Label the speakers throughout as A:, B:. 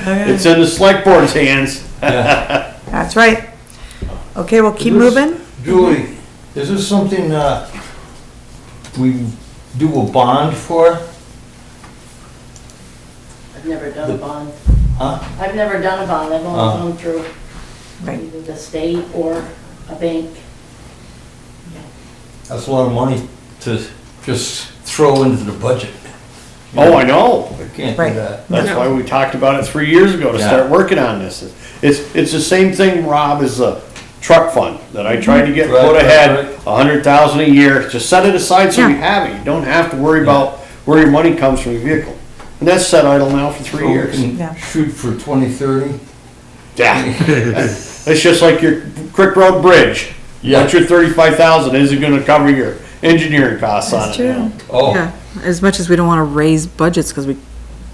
A: It's in the select board's hands.
B: That's right. Okay, we'll keep
C: This-
B: moving.
C: Julie, is this something, uh, we do a bond for?
D: I've never done a bond.
C: Huh?
D: I've never done a bond, I've
C: Ah.
D: only gone through
B: Right,
D: either the state or a bank.
C: That's a lot of money to just throw into the budget.
A: Oh, I know.
C: I can't do
B: Right.
C: that.
A: That's why we talked about it three years ago to
C: Yeah.
A: start working on this. It's, it's the same thing, Rob, as the truck fund that I tried to get
C: Right,
A: put
C: right,
A: ahead,
C: right.
A: a hundred thousand a year. Just set it aside so you
B: Yeah.
A: have it. You don't have to worry about where your money comes from your vehicle. And that's set idle now for
C: So
A: three
C: we
A: years.
C: can
B: Yeah.
C: Shoot for twenty thirty?
A: Yeah. It's just like your Crick Road Bridge.
C: Yeah.
A: What's your thirty-five thousand isn't gonna cover your engineering costs on
B: that's
A: it now.
B: true.
C: Oh,
E: Yeah, as much as we don't want to raise budgets, because we,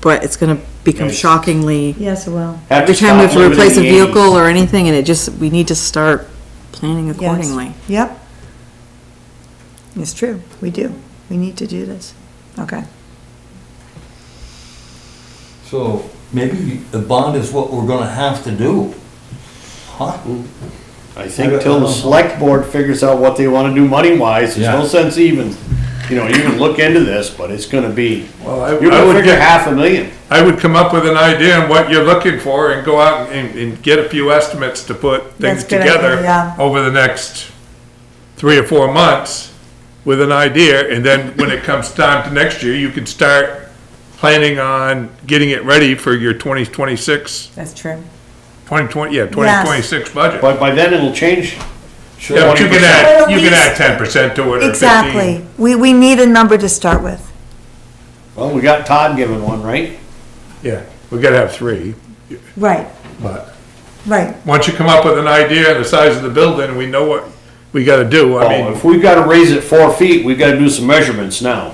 E: but it's gonna become
A: Yes.
E: shockingly,
B: Yes, it will.
A: Have to
E: every time we have
A: stop
E: to replace a
A: limiting the
E: vehicle or anything, and it just, we need to start planning
B: Yes.
E: accordingly.
B: Yep. It's true, we do. We need to do this. Okay.
C: so maybe the bond is what we're gonna have to do. Huh?
A: I think till the
F: uh-huh.
A: select board figures out what they wanna do money-wise, there's no
C: Yeah.
A: sense even, you know, you can look into this, but it's gonna be,
F: Well, I,
A: you're
F: I
A: gonna
F: would
A: figure
F: get,
A: half a million.
F: I would come up with an idea on what you're looking for and go out and, and get a few estimates to put
B: That's
F: things
B: a good idea,
F: together
B: yeah.
F: over the next three or four months with an idea, and then when it comes time to next year, you can start planning on getting it ready for your 2026,
B: That's true.
F: 2020, yeah, 2026 budget.
A: But by then it'll change.
F: Yeah, but you can add, you
B: 20%.
F: can add 10% to it or 15.
B: Exactly. We, we need a number to start with.
A: Well, we got Todd giving one, right?
F: Yeah, we gotta have three,
B: Right,
F: but.
B: right.
F: once you come up with an idea and the size of the building, we know what we gotta do, I
A: Well,
F: mean,
A: if we've gotta raise it four feet, we gotta do some measurements now,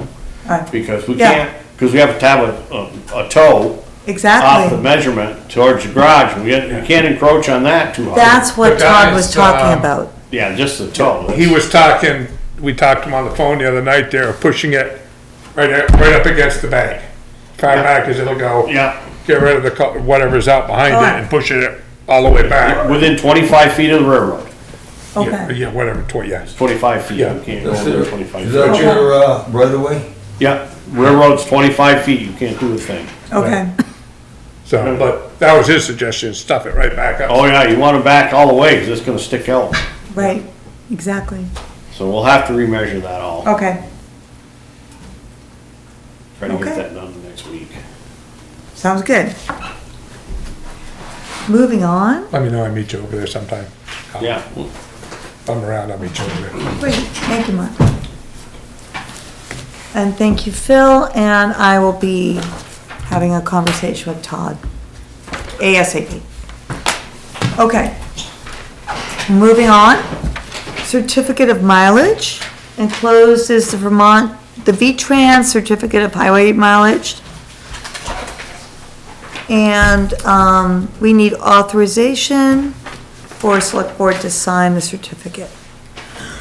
B: Right.
A: because we
B: Yeah.
A: can't, because we have to have a, a, a toe off the
B: Exactly.
A: measurement towards the garage, we can't, we can't encroach on that too hard.
B: That's what
F: The
B: Todd was
F: guys,
B: talking
F: um,
B: about.
A: Yeah, just the toe.
F: he was talking, we talked to him on the phone the other night there, pushing it right, up- right up against the bank. Far back as it'll go,
A: Yeah,
F: get rid of the, co- whatever's out behind it and push it all the way back.
A: within twenty-five feet of the railroad,
F: Yeah,
B: Okay.
F: yeah, whatever, tw- yes.
A: twenty-five feet, you
F: Yeah.
A: can't go
C: That's
A: over
C: it.
A: twenty-five
C: Is
A: feet.
C: that your, uh, right away?
A: Yeah, railroad's twenty-five feet, you can't do a thing.
B: Okay,
F: So, but that was his suggestion, stuff it right back up.
A: Oh yeah, you wanna back all the way, cause it's gonna stick out,
B: right, exactly.
A: so we'll have to remeasure that
G: Oh,
A: all,
B: Okay,
A: try to get
B: okay.
A: that done next week.
B: sounds good. Moving on.
F: Let me know, I meet you over there sometime.
A: Yeah,
F: If I'm around, I'll meet you over there.
B: Great, thank you, Mark. And thank you, Phil, and I will be having a conversation with Todd ASAP. Okay. Moving on, certificate of mileage. Enclosed is the Vermont, the V-Trans certificate of highway mileage. And, um, we need authorization for select board to sign the certificate.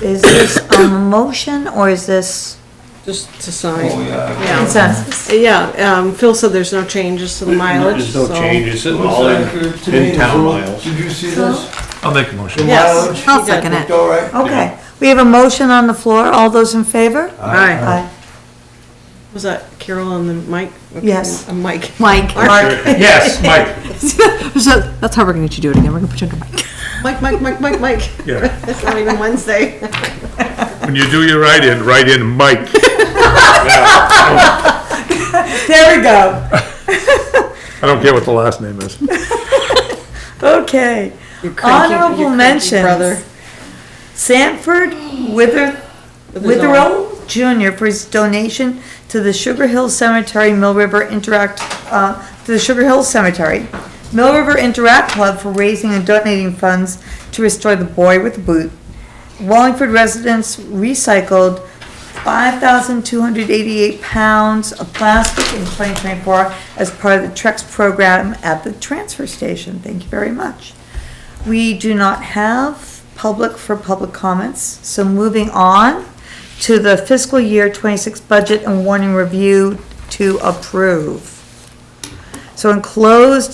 B: Is this a motion or is this
G: Just to
A: Oh,
G: sign.
C: yeah.
G: Yeah,
B: consensus?
G: yeah, um, Phil said there's no changes to the mileage,
A: there's
G: so.
A: no changes, it's all in, in town miles.
C: Did you see this?
F: I'll make a motion.
C: The
G: Yes.
C: mileage?
G: I'll second
C: Looked all right?
B: Okay, we have a motion on the floor. All those in favor?
G: Aye.
B: Aye.
G: Was that Carol and then Mike? Okay,
B: Yes.
G: uh, Mike.
E: Mike,
B: Mark,
F: Yes, Mike,
E: so that's how we're gonna get you to do it again, we're gonna put you under Mike.
G: Mike, Mike, Mike, Mike, Mike.
F: yeah.
G: It's not even Wednesday.
F: When you do your write-in, write in Mike.
B: there we go.
F: I don't care what the last name is.
B: Okay.
G: You cranky- you
B: Honorable
G: cranky brother.
B: mentions. Sanford Wither, Witherell Jr. for his donation to the Sugar Hill Cemetery Mill River Interact, uh, to the Sugar Hill Cemetery. Mill River Interact Club for raising and donating funds to restore the boy with the boot. Wallingford residents recycled five thousand two hundred eighty-eight pounds of plastic in twenty twenty-four as part of the Trex program at the transfer station. Thank you very much. We do not have public for public comments, so moving on to the fiscal year twenty-six budget and warning review to approve. So enclosed